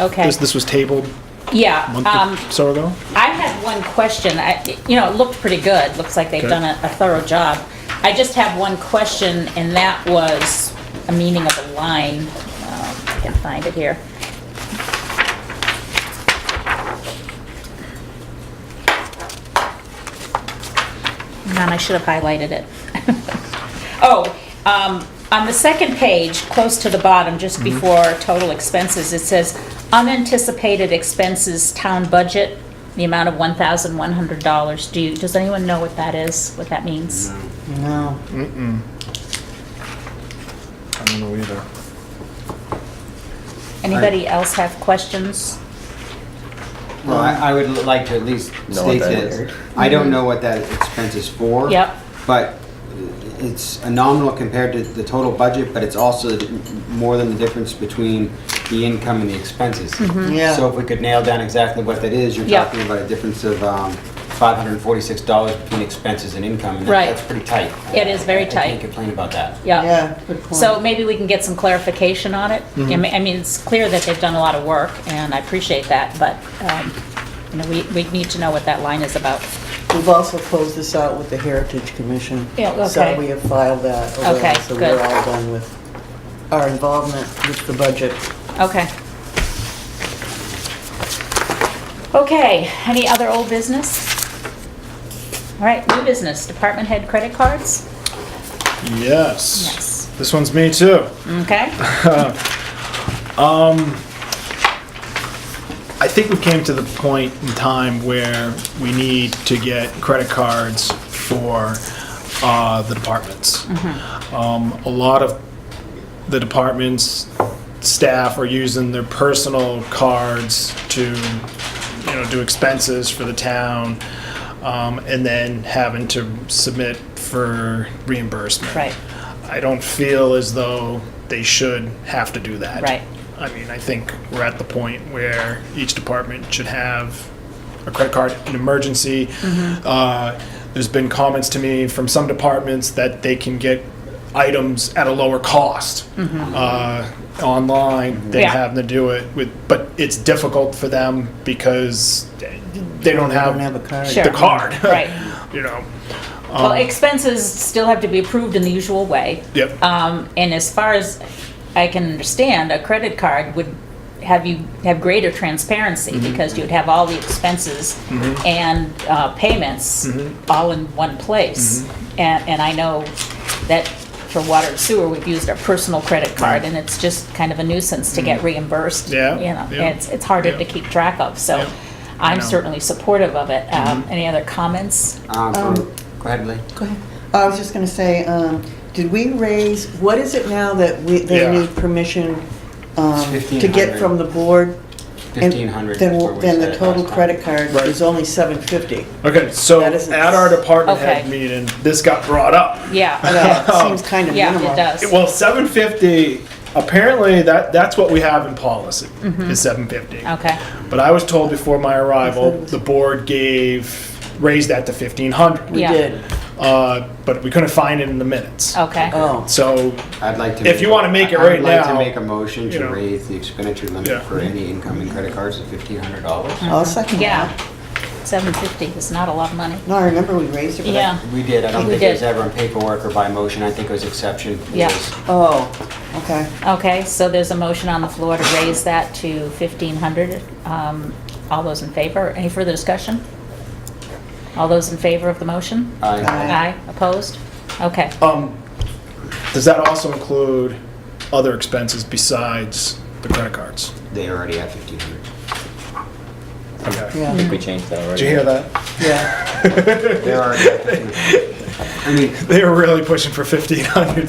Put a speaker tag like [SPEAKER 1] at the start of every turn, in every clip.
[SPEAKER 1] Okay.
[SPEAKER 2] This, this was tabled
[SPEAKER 1] Yeah,
[SPEAKER 2] a month
[SPEAKER 1] um,
[SPEAKER 2] or so ago.
[SPEAKER 1] I had one question. I, you know, it looked pretty good. Looks like they've
[SPEAKER 2] Okay.
[SPEAKER 1] done a a thorough job. I just have one question, and that was a meaning of a line. Um, I can find it here. Man, I should have highlighted it. Oh, um, on the second page, close to the bottom, just before total expenses, it says unanticipated expenses, town budget, the amount of one thousand one hundred dollars. Do you, does anyone know what that is, what that means?
[SPEAKER 3] No.
[SPEAKER 2] I don't know either.
[SPEAKER 1] Anybody else have questions?
[SPEAKER 3] Well, I, I would like to at least
[SPEAKER 4] Know what
[SPEAKER 3] state
[SPEAKER 4] that is.
[SPEAKER 3] that, I don't know what that expense is for.
[SPEAKER 1] Yep.
[SPEAKER 3] But it's a nominal compared to the total budget, but it's also the- more than the difference between the income and the expenses.
[SPEAKER 1] Mm-hmm.
[SPEAKER 5] Yeah.
[SPEAKER 3] So if we could nail down exactly what that is, you're
[SPEAKER 1] Yeah.
[SPEAKER 3] talking about a difference of, um, five hundred and forty-six dollars between expenses and income. and that-
[SPEAKER 1] Right.
[SPEAKER 3] That's pretty tight.
[SPEAKER 1] It is very
[SPEAKER 3] I
[SPEAKER 1] tight.
[SPEAKER 3] can't complain about that.
[SPEAKER 1] Yeah.
[SPEAKER 5] Yeah, good point.
[SPEAKER 1] So maybe we can get some clarification on it. I mean- I mean, it's clear that they've done a lot of work, and I appreciate that, but, um, you know, we, we need to know what that line is about.
[SPEAKER 5] We've also closed this out with the Heritage Commission.
[SPEAKER 1] Yeah, okay.
[SPEAKER 5] So we have filed that. over,
[SPEAKER 1] Okay,
[SPEAKER 5] So
[SPEAKER 1] good.
[SPEAKER 5] we're all done with our involvement with the budget.
[SPEAKER 1] Okay. Okay, any other old business? All right, new business, department head credit cards?
[SPEAKER 2] Yes.
[SPEAKER 1] Yes.
[SPEAKER 2] This one's me too.
[SPEAKER 1] Okay,
[SPEAKER 2] I think we came to the point in time where we need to get credit cards for uh, the departments.
[SPEAKER 1] Mm-hmm.
[SPEAKER 2] Um, a lot of the departments staff are using their personal cards to you know do expenses for the town um, and then having to submit for reimbursement
[SPEAKER 1] Right.
[SPEAKER 2] i don't feel as though they should have to do that
[SPEAKER 1] Right.
[SPEAKER 2] i mean i think we're at the point where each department should have a credit card in emergency
[SPEAKER 1] Mm-hmm.
[SPEAKER 2] uh, there's been comments to me from some departments that they can get items at a lower cost uh, online than
[SPEAKER 1] Mm-hmm. Yeah.
[SPEAKER 2] having to do it with, but it's difficult for them because they don't
[SPEAKER 5] I
[SPEAKER 2] have
[SPEAKER 5] don't have a card.
[SPEAKER 1] Sure.
[SPEAKER 2] the card. Um,
[SPEAKER 1] Right.
[SPEAKER 2] you know.
[SPEAKER 1] well, expenses still have to be approved in the usual way.
[SPEAKER 2] Yep.
[SPEAKER 1] Um, and as far as I can understand, a credit card would have you have greater transparency
[SPEAKER 2] Mm-hmm.
[SPEAKER 1] because you'd have all the expenses and uh, payments
[SPEAKER 2] Mm-hmm.
[SPEAKER 1] all in one place. And, and I know that for water and sewer, we've used our personal credit card,
[SPEAKER 2] Right. Mm-hmm.
[SPEAKER 1] and it's just kind of a nuisance to get reimbursed.
[SPEAKER 2] Yeah,
[SPEAKER 1] You know,
[SPEAKER 2] yeah,
[SPEAKER 1] it's, it's harder to
[SPEAKER 2] yeah.
[SPEAKER 1] keep track of. So
[SPEAKER 2] Yeah,
[SPEAKER 1] I'm
[SPEAKER 2] I know. Mm-hmm.
[SPEAKER 1] certainly supportive of it. Um, any other comments?
[SPEAKER 3] Um, for-
[SPEAKER 5] Um,
[SPEAKER 3] go ahead, Lee.
[SPEAKER 5] Go ahead. Uh, I was just going to say, um, did we raise, what is it now that we, they
[SPEAKER 2] Yeah.
[SPEAKER 5] need permission um,
[SPEAKER 3] It's
[SPEAKER 5] to
[SPEAKER 3] 1,500.
[SPEAKER 5] get from the board? And
[SPEAKER 3] Fifteen hundred.
[SPEAKER 5] Then, then the total credit card
[SPEAKER 2] Right.
[SPEAKER 5] is only 750.
[SPEAKER 2] Okay, so
[SPEAKER 5] That isn't-
[SPEAKER 2] at our department head
[SPEAKER 1] Okay.
[SPEAKER 2] meeting, this got brought up.
[SPEAKER 1] Yeah.
[SPEAKER 5] That seems kind of
[SPEAKER 1] yeah,
[SPEAKER 5] minimal.
[SPEAKER 1] it does.
[SPEAKER 2] Well, 750. Apparently, that that's what we have in policy is 750.
[SPEAKER 1] Mm-hmm. Okay.
[SPEAKER 2] But I was told before my
[SPEAKER 5] I thought
[SPEAKER 2] arrival,
[SPEAKER 5] it was-
[SPEAKER 2] the board gave raised that to 1500.
[SPEAKER 5] We
[SPEAKER 1] Yeah.
[SPEAKER 5] did.
[SPEAKER 2] Uh, but we couldn't find it in the minutes.
[SPEAKER 1] Okay.
[SPEAKER 5] Oh.
[SPEAKER 2] So,
[SPEAKER 3] I'd like to.
[SPEAKER 2] If
[SPEAKER 3] make
[SPEAKER 2] you
[SPEAKER 3] a-
[SPEAKER 2] wanna make it
[SPEAKER 3] I would
[SPEAKER 2] right
[SPEAKER 3] like to
[SPEAKER 2] now,
[SPEAKER 3] make a motion
[SPEAKER 2] you
[SPEAKER 3] to
[SPEAKER 2] know.
[SPEAKER 3] raise the expenditure
[SPEAKER 2] Yeah.
[SPEAKER 3] limit for any incoming credit cards to fifteen hundred dollars.
[SPEAKER 5] I'll second
[SPEAKER 1] Yeah,
[SPEAKER 5] that.
[SPEAKER 1] seven fifty is not a lot of money.
[SPEAKER 5] No, I remember we raised it. but I-
[SPEAKER 1] Yeah,
[SPEAKER 3] We did, I don't
[SPEAKER 1] Mm-hmm. We
[SPEAKER 3] think it was
[SPEAKER 1] did.
[SPEAKER 3] ever in paperwork or by motion, I think it was exception. It
[SPEAKER 1] Yeah.
[SPEAKER 3] was-
[SPEAKER 5] Oh, okay.
[SPEAKER 1] okay, so there's a motion on the floor to raise that to fifteen hundred. Um, all those in favor? Any further discussion? All those in favor of the motion?
[SPEAKER 3] I-
[SPEAKER 1] Aye, opposed? Okay,
[SPEAKER 2] um, does that also include other expenses besides the credit cards?
[SPEAKER 3] They already have fifteen hundred.
[SPEAKER 2] Okay.
[SPEAKER 4] I
[SPEAKER 5] Yeah,
[SPEAKER 4] think we changed that already.
[SPEAKER 2] Did you hear that?
[SPEAKER 5] yeah.
[SPEAKER 3] They already have fifteen hundred. I mean,
[SPEAKER 2] They were really pushing for 1500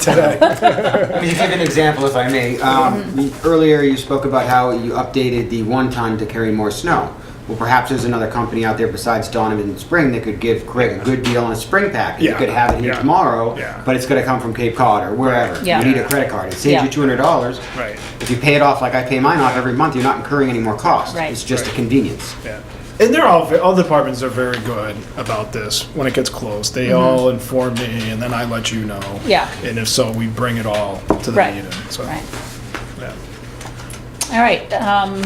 [SPEAKER 2] today.
[SPEAKER 3] I mean, to give an example, if I may,
[SPEAKER 1] Mm-hmm.
[SPEAKER 3] um, you- earlier you spoke about how you updated the one ton to carry more snow. Well, perhaps there's another company out there besides Donovan Spring that could give Craig a good deal on a spring pack. You
[SPEAKER 2] Yeah,
[SPEAKER 3] could have it here
[SPEAKER 2] yeah,
[SPEAKER 3] tomorrow,
[SPEAKER 2] yeah.
[SPEAKER 3] but it's gonna come from Cape Cod or wherever.
[SPEAKER 1] Yeah.
[SPEAKER 3] You need a credit card. It saves
[SPEAKER 1] Yeah.
[SPEAKER 3] you two hundred dollars.
[SPEAKER 2] right.
[SPEAKER 3] If you pay it off like I pay mine off every month, you're not incurring any more cost.
[SPEAKER 1] Right.
[SPEAKER 3] It's just a
[SPEAKER 2] Right.
[SPEAKER 3] convenience.
[SPEAKER 2] Yeah. And they're all, all the departments are very good about this when it gets closed. They all inform me and then I let you know.
[SPEAKER 1] Mm-hmm. Yeah.
[SPEAKER 2] And if so, we bring it all to the
[SPEAKER 1] Right.
[SPEAKER 2] meeting. So,
[SPEAKER 1] right.
[SPEAKER 2] yeah.
[SPEAKER 1] All right, um,